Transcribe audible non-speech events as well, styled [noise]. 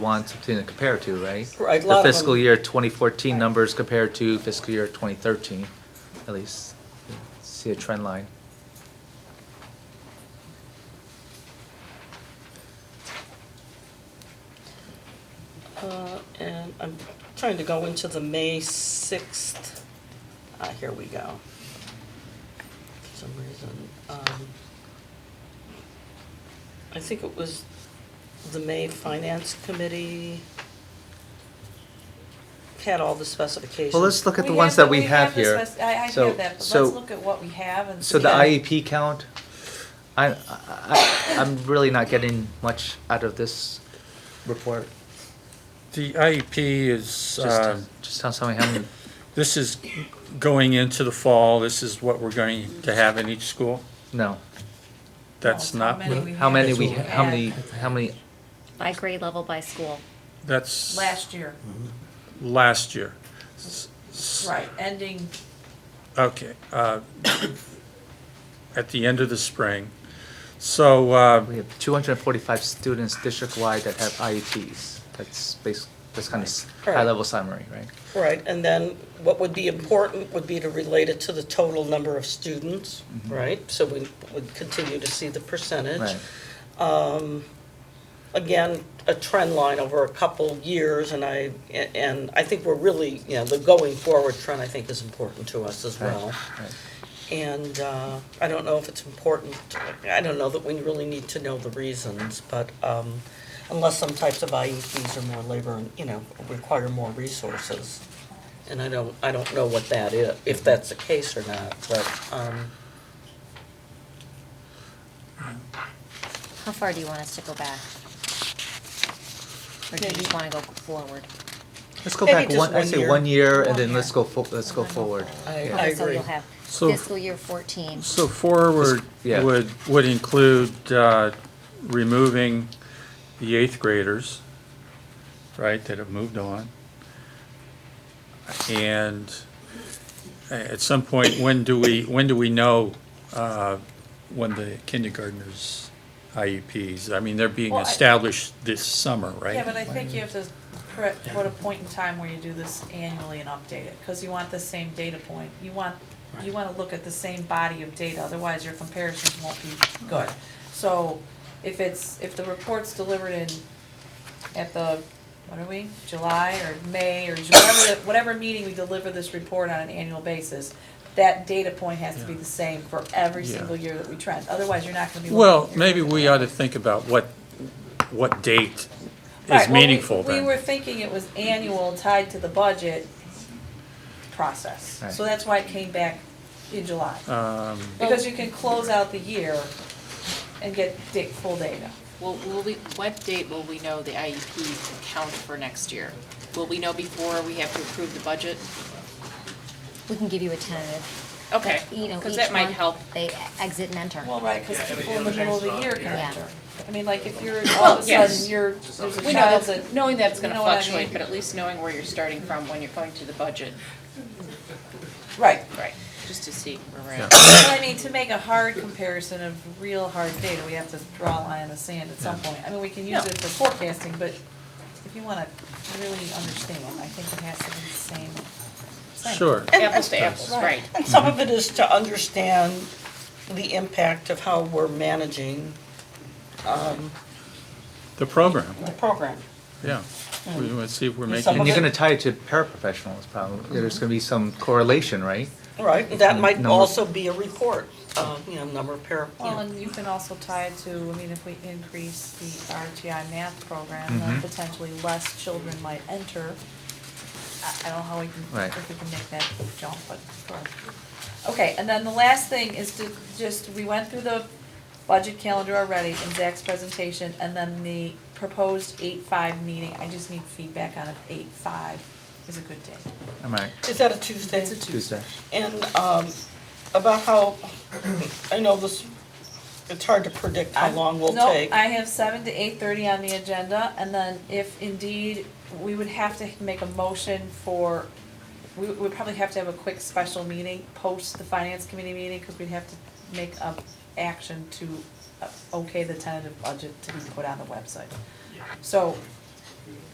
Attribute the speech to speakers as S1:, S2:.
S1: want something to compare to, right?
S2: Right, a lot
S1: The
S2: of them-
S1: fiscal year 2014 numbers compared to fiscal year 2013, at least, see a trend line.
S2: Uh, And I'm trying to go into the May 6th. Ah, here we go. For some reason, um, I think it was the May Finance Committee had all the specifications.
S1: Well, let's look at the ones that we have
S3: the
S1: here.
S3: spec- I, I
S1: So-
S3: have that, but
S1: so-
S3: let's look at what we have and.
S1: So the
S3: see.
S1: IEP count, I, I- I, I'm really not getting much out of this report.
S4: The IEP is,
S1: Just,
S4: uh,
S1: just tell something, how many-
S4: this is going into the fall, this is what we're going to have in each school.
S1: no.
S4: That's
S3: Well, how
S4: not,
S3: many we
S1: How
S3: had
S1: many
S3: that
S1: we,
S3: we
S1: how
S3: had
S1: many, how many,
S5: By grade level, by school.
S4: that's
S3: Last year,
S4: last year.
S3: right, ending,
S4: Okay, uh, at the end of the spring. So, uh,
S1: we have 245 students district-wide that have IEPs. That's basic, that's kind of
S2: Right.
S1: high-level summary, right?
S2: Right, and then what would be important would be to relate it to the total number of students, right? So we would continue to see the percentage.
S1: Mm-hmm. Right.
S2: again, a trend line over a couple years, and I, and I think we're really, you know, the going forward trend, I think, is important to us as well.
S1: Right.
S2: And uh, I don't know if it's important, I don't know that we really need to know the reasons, but um, unless some types of IEPs are more labor, and you know, require more resources. And I don't, I don't know what that is, if that's the case or not, but, um,
S5: How far do you want us to go back? Or do you just wanna go forward?
S1: Let's go
S2: Maybe
S1: back
S2: just
S1: one, I
S2: one
S1: say
S2: year.
S1: one year, and
S5: One
S1: then
S5: year.
S1: let's go, fo- let's go
S5: And then we'll
S1: forward.
S5: forward.
S2: I,
S1: Yeah.
S2: I
S5: Okay, so
S2: agree.
S5: you'll have
S4: So-
S5: fiscal year fourteen.
S4: so forward
S1: Yeah.
S4: would, would include uh, removing the eighth graders, right, that have moved on. And uh, at some point, when do we, when do we know uh, when the kindergartners IEPs? I mean, they're being
S3: Well, I-
S4: established this summer, right?
S3: yeah, but I think you have to pre- put a point in time where you do this annually and update it, because you want the same data point. You want, you want to look at the same body of data, otherwise your comparisons won't be good. So if it's, if the report's delivered in, at the, what are we, July or May or June, whatever, the- whatever meeting we deliver this report on an annual basis, that data point has to be the same for every
S4: Yeah.
S3: single year that we trend, otherwise you're not gonna be.
S4: Well,
S3: looking at your-
S4: maybe we ought to think about what, what date
S3: Right, well,
S4: is
S3: we-
S4: meaningful
S3: We were
S4: then.
S3: thinking it was annual tied to the budget process.
S1: Right.
S3: So that's why it came back in July.
S4: Um,
S3: Because you can close out the year and get da- full data.
S6: Will, will we, what date will we know the IEP to count for next year? Will we know before we have to approve the budget?
S5: We can give you a tentative,
S6: Okay,
S5: you know, each
S6: because that might
S5: month
S6: help.
S5: They exit and enter.
S3: Well, right, because people in the middle of the year can
S5: Yeah.
S3: enter. Oh, I mean, like, if you're, all of a
S6: yes.
S3: sudden, you're, there's a
S6: We know
S3: child
S6: that's,
S3: that.
S6: knowing that's gonna
S3: you know what I
S6: fluctuate,
S3: mean?
S6: but at least knowing where you're starting from when you're going to the budget.
S3: Right.
S6: Right. Just to see where we're
S4: Yeah.
S6: at.
S3: But I mean, to make a hard comparison of real hard data, we have to draw a line in the sand at some point. I mean, we can use it for forecasting, but if you wanna really understand, I think it has to be the same. same. [laughs]
S4: Sure.
S6: Apples to apples,
S3: Right.
S6: right.
S2: And some of it is to understand the impact of how we're managing
S4: The program,
S2: the program.
S4: yeah. We want to see if we're
S2: Some
S1: And
S2: of
S4: making,
S1: you're gonna tie it to paraprofessionals, probably. There's gonna be some correlation, right?
S2: Right, and that might
S1: Number-
S2: also be a report, uh, you know, number of para, you
S3: Well,
S2: know.
S3: and you can also tie it to, I mean, if we increase the RTI math program, then potentially less children might enter. I, I don't know how we can,
S1: Right.
S3: if we can make that jump, but sure. Okay, and then the last thing is to just, we went through the budget calendar already in Zach's presentation, and then the proposed eight-five meeting, I just need feedback on if eight-five is a good day.
S1: Am I,
S2: Is that a Tuesday?
S3: It's a
S1: Tuesday?
S3: Tuesday.
S2: And um, about how, I know this, it's hard to predict how
S3: I'm-
S2: long we'll
S3: no,
S2: take.
S3: I have seven to eight thirty on the agenda, and then if indeed, we would have to make a motion for, we would probably have to have a quick special meeting, post the finance committee meeting, because we'd have to make a action to uh, okay the tentative budget to be put on the website. So